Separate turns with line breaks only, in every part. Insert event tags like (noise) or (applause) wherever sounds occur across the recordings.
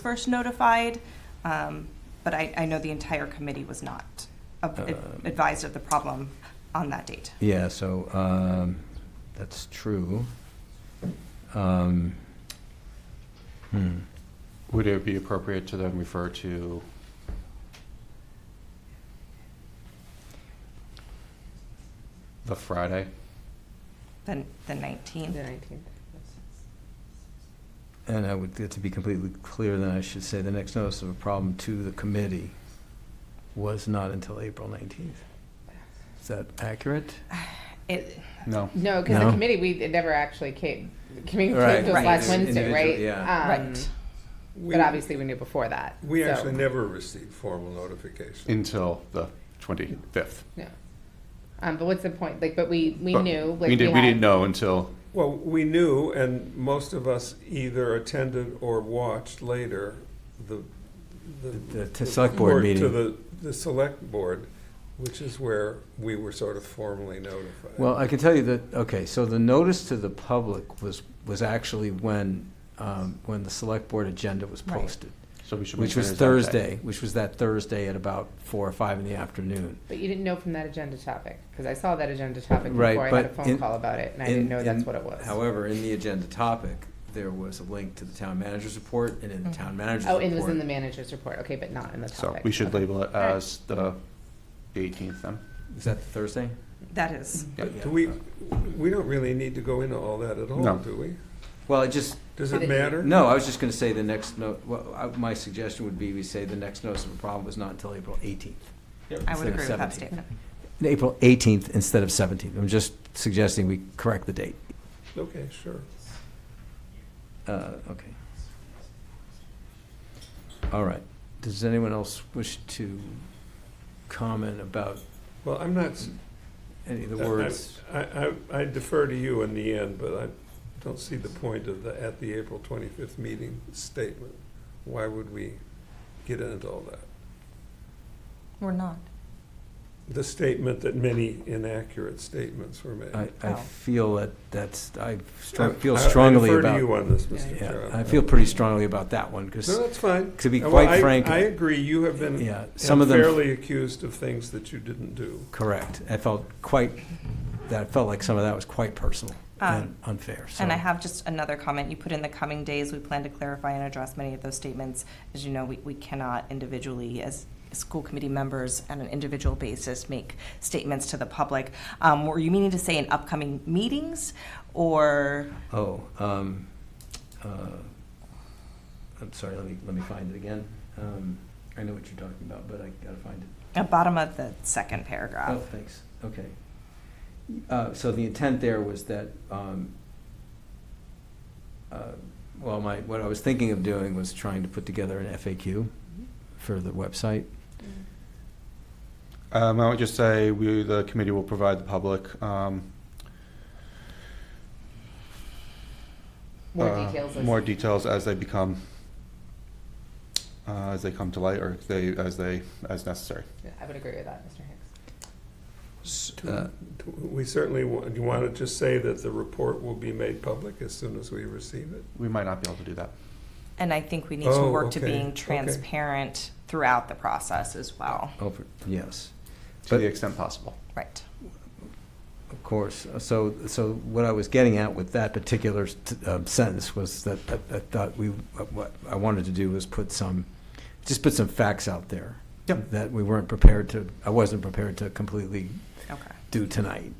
first notified, um, but I, I know the entire committee was not ab-
Um.
advised of the problem on that date.
Yeah, so, um, that's true. Um, hmm.
Would it be appropriate to then refer to, the Friday?
The, the 19th.
And I would, to be completely clear, then I should say the next notice of a problem to the committee was not until April 19th. Is that accurate?
It,
No.
No, because
No.
the committee, we, it never actually came, the committee
Right.
came to us
Right.
last Wednesday,
Individual-
right?
yeah.
Um,
Right.
We-
But obviously, we knew before that.
We
so-
actually never received formal notification.
Until the 25th.
No. Um, but what's the point, like, but we, we
But
knew, like,
We didn't, we
had-
didn't know until,
Well, we knew, and most of us either attended or watched later the.
The- the select board
report To
meeting.
the, the select board, which is where we were sort of formally notified.
Well, I can tell you that, okay, so the notice to the public was, was actually when, um, when the select board agenda was
Right.
posted,
so we should. make
which was
sure there's that
Thursday, which was that Thursday at about four or five in the afternoon.
But you didn't know from that agenda topic, because I saw that agenda topic
Right,
before I had a
but
phone
in-
call about it, and I
In-
didn't know that's
in-
what it was.
However, in the agenda topic, there was a link to the town manager's report, and in the town manager's
Oh,
report.
it was in the manager's report, okay, but not in the
So
topic.
we should
Okay.
label it
right.
as the 18th then.
Is that Thursday?
that is,
Do we, we don't really need to go into all that at all,
No.
do we?
Well, it just,
Does it matter?
no, I was just gonna say the next note, well, I- my suggestion would be we say the next notice of a problem was not until April eighteenth.
I would
Instead of
agree with that
17th.
statement.
April eighteenth instead of seventeenth. I'm just suggesting we correct the date.
Okay, sure.
Uh, okay. All right. Does anyone else wish to comment about
Well, I'm not, s-
any of the
I- I-
words?
Uh, I, I I defer to you in the end, but I don't see the point of the, at the April 25th meeting statement. Why would we get into all that?
We're not.
The statement that many inaccurate statements were made.
I, I
Oh.
feel that that's, I
I-
str- feel
I-
strongly
I defer to you
about,
on this, Mr.
yeah,
Chair.
I feel pretty strongly about that one, because,
No, that's fine. Uh,
to be
Well,
quite
I-
frank,
I agree, you have been
yeah, some of them,
unfairly accused of things that you didn't do.
correct. I felt quite, that felt like some of that was quite personal and
Um,
unfair, so.
And I have just another comment. You put in the coming days, we plan to clarify and address many of those statements. As you know, we, we cannot individually, as school committee members, on an individual basis, make statements to the public. Um, were you meaning to say in upcoming meetings or?
Oh, um, uh, I'm sorry, let me, let me find it again. Um, I know what you're talking about, but I gotta find it.
At bottom of the second
Oh,
paragraph.
thanks, okay. Uh, so the intent there was that, um, uh, well, my, what I was thinking of doing was trying to put together an FAQ for the website.
Um, I would just say we, the committee will provide the public, um,
More
uh,
details. as-
More details as they become, uh, as they come to light or they, as they, as necessary.
Yeah, I would agree with that, Mr. Hicks.
S-
Do-
uh,
do- We certainly, wa- do you want to just say that the report will be made public as soon as we receive it?
We might not be able to do that.
And I think we need to
Oh,
work to
okay,
being
okay.
transparent throughout the process as well.
Over, Oh, yes,
to
But-
the extent possible.
Right.
of course. Uh, So, so what I was getting at with that particular s- um, sentence was that, that I thought we, uh, what I wanted to do was put some, just put some facts out there.
Yep.
That we weren't prepared to, I wasn't prepared to completely
Okay.
do tonight.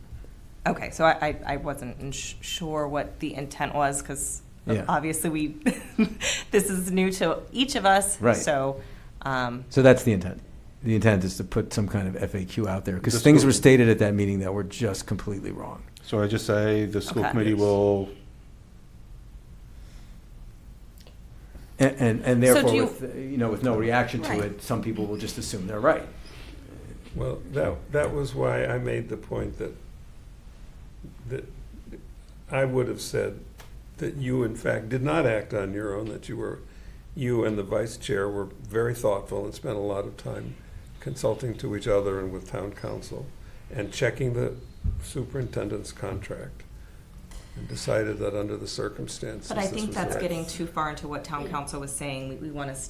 Okay, so I, I, I wasn't ins- sure what the intent was, because
Yeah.
obviously we, (laughs) this is new to each of us.
Right.
So, um,
So that's the intent. The intent is to put some kind of FAQ out there, because
Just
things
go-
were stated at that meeting that were just completely wrong.
So I just say the school
Okay.
committee will,
And, and, and
So do
therefore,
you-
with, uh, you know, with no reaction to
Right.
it, some people will just assume they're right.
Well, that, that was why I made the point that, that I would have said that you in fact did not act on your own, that you were, you and the vice chair were very thoughtful and spent a lot of time consulting to each other and with town council and checking the superintendent's contract and decided that under the circumstances.
But I
this
think
was
that's
the right-
getting too far into what town council was saying. We, we want to stay